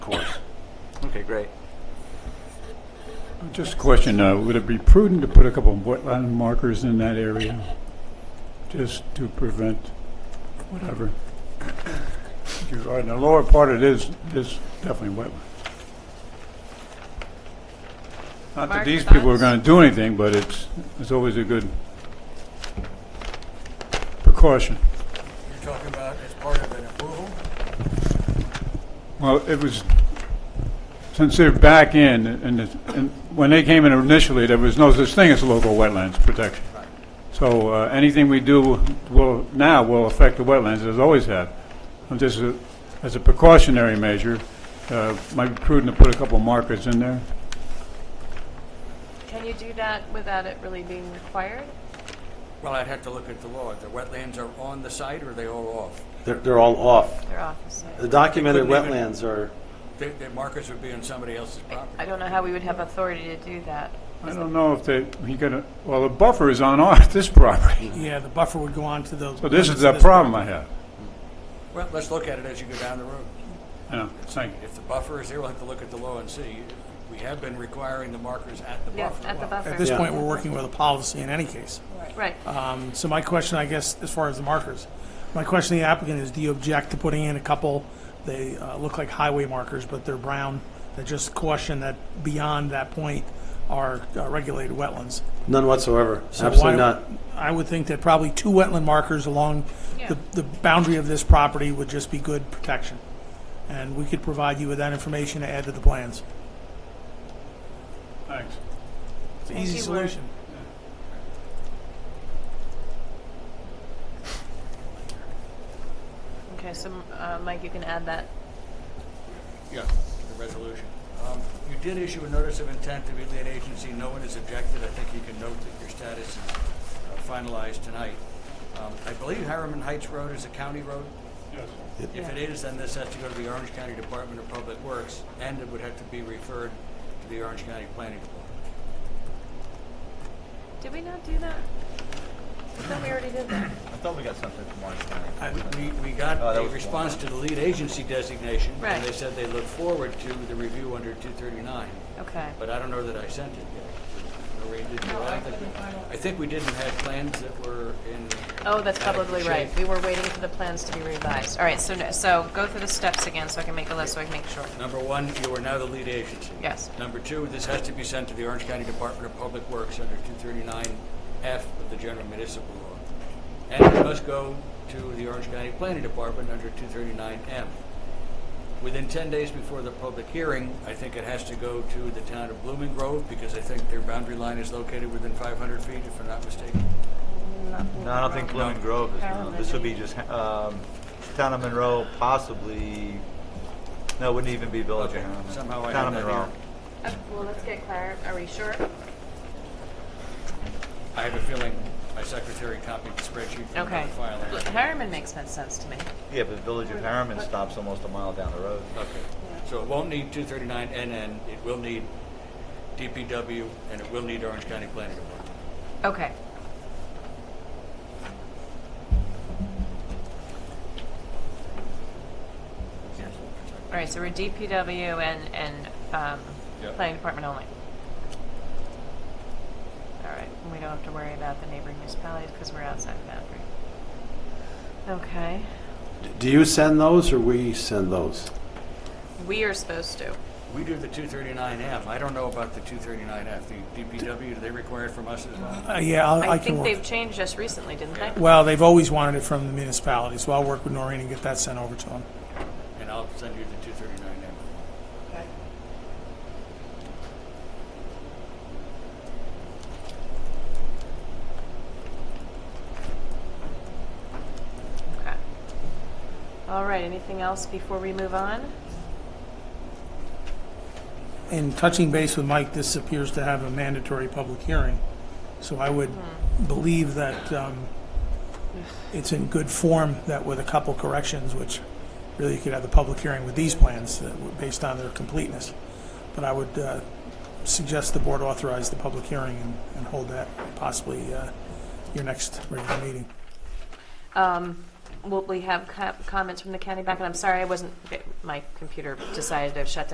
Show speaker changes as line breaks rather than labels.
Okay, great.
Just a question, uh, would it be prudent to put a couple of wetland markers in that area? Just to prevent whatever? You are in the lower part, it is, is definitely wetland. Not that
Mark,
these people are
thoughts?
gonna do anything, but it's, it's always a good precaution.
You're talking about as part of an approval?
Well, it was, since they're back in, and, it's- and when they came in initially, there was no such thing as local wetlands protection. So, uh, anything we do will, now will affect the wetlands, as always have. And just a- as a precautionary measure, uh, might be prudent to put a couple markers in there.
Can you do that without it really being required?
Well, I'd have to look at the law. The wetlands are on the site or are they all off?
They're, they're all off.
Their office.
The documented
Couldn't even-
wetlands are,
The, the markers would be on somebody else's
I
property.
don't know how we would have authority to do that.
I don't know if they, he got a, well, the buffer is on our, this property,
Yeah, the buffer would go on to the.
so this is the problem I have.
Well, let's look at it as you go down the road.
Yeah, thank you.
If the buffer is there, we'll have to look at the law and see. We have been requiring the markers at the
Yeah,
buffer.
at the
At
buffer.
this
Yeah.
point, we're working with a policy in any case.
Right.
Um, So my question, I guess, as far as the markers, my question to the applicant is, do you object to putting in a couple, they uh, look like highway markers, but they're brown, that just caution that beyond that point are uh, regulated wetlands?
none whatsoever,
So why-
absolutely not.
I would think that probably two wetland markers along
Yeah.
the, the boundary of this property would just be good protection. And we could provide you with that information to add to the plans.
Thanks.
It's an
Thank
easy
you, Lord.
solution.
Okay, so uh, Mike, you can add that.
Yeah, the resolution. Um, You did issue a notice of intent to the lead agency. No one has objected. I think you can note that your status is uh, finalized tonight. Um, I believe Harriman Heights Road is a county road. If it is, then this has to go to the Orange County Department of Public Works, and it would have to be referred to the Orange County Planning Department.
Did we not do that? I thought we already did that.
I thought we got something from Orange
I-
County.
We, we got
Oh, that
a
was
response to the lead agency designation,
Right.
and they said they look forward to the review under 239,
Okay.
but I don't know that I sent it yet. Maureen, did you? I think we- I think we didn't have plans that were in.
Oh, that's probably
adequate
right.
shape.
We were waiting for the plans to be revised. All right, so, no- so go through the steps again so I can make a list so I can make sure.
Number one, you are now the lead agency.
Yes.
Number two, this has to be sent to the Orange County Department of Public Works under 239F of the General Municipal Law. And it must go to the Orange County Planning Department under 239M. Within 10 days before the public hearing, I think it has to go to the town of Blooming Grove because I think their boundary line is located within 500 feet, if I'm not mistaken.
No, I don't think Blooming Grove is, no. This would be just, um, town of Monroe, possibly, no, it wouldn't even be Village of
Okay,
Harriman.
somehow I
Town of
had that
Monroe.
here.
Uh, Well, let's get Claire. Are we sure?
I have a feeling my secretary copied the spreadsheet from
Okay.
another file.
Look, Harriman makes no sense to me.
Yeah, but Village of Harriman stops almost a mile down the road.
Okay, so it won't need 239 NN, it will need DPW, and it will need Orange County Planning Department.
Okay. All right, so we're DPW and, and um,
Yep.
planning department only. All right, and we don't have to worry about the neighboring municipalities because we're outside the boundary. Okay,
Do you send those or we send those?
we are supposed to.
We do the 239M, I don't know about the 239F, the DPW, do they require it from us as well?
Uh, Yeah, I'll-
I
I can
think
work.
they've changed just recently, didn't they?
Well, they've always wanted it from the municipality, so I'll work with Noreen and get that sent over to them.
And I'll send you the 239M.
Okay. All right, anything else before we move on?
In touching base with Mike, this appears to have a mandatory public hearing, so I would
Hmm.
believe that um, it's in good form that with a couple corrections, which really you could have the public hearing with these plans that were based on their completeness. But I would uh, suggest the board authorize the public hearing and- and hold that possibly uh, your next regular meeting.
Um, Will we have co- comments from the county back? And I'm sorry, I wasn't, my computer decided to shut down.